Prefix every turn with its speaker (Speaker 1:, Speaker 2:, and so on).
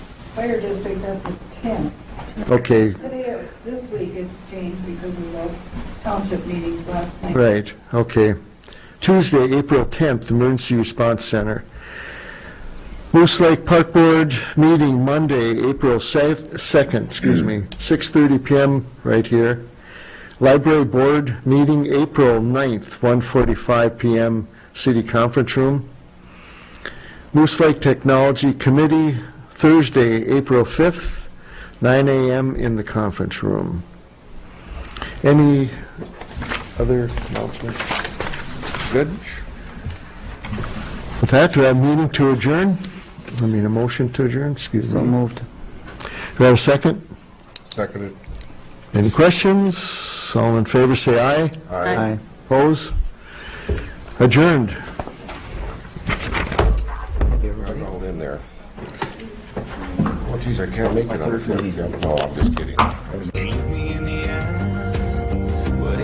Speaker 1: fire district, that's the tenth.
Speaker 2: Okay,
Speaker 1: Today, this week it's changed because of the township meetings last night.
Speaker 2: right, okay. Tuesday, April 10th, Emergency Response Center. Moose Lake Park Board meeting Monday, April 2nd, excuse me, 6:30 PM right here. Library Board meeting April 9th, 1:45 PM, City Conference Room. Moose Lake Technology Committee, Thursday, April 5th, 9 AM in the conference room. Any other announcements? Good. With that, do I have a meeting to adjourn? I mean, a motion to adjourn, excuse me. So moved. Do I have a second?
Speaker 3: Seconded.
Speaker 2: Any questions? All in favor, say aye.
Speaker 3: Aye.
Speaker 2: Oppose? Adjourned.
Speaker 3: I'm all in there. Oh, Well, geez, I can't make it on the 5th. No, I'm just kidding. I was-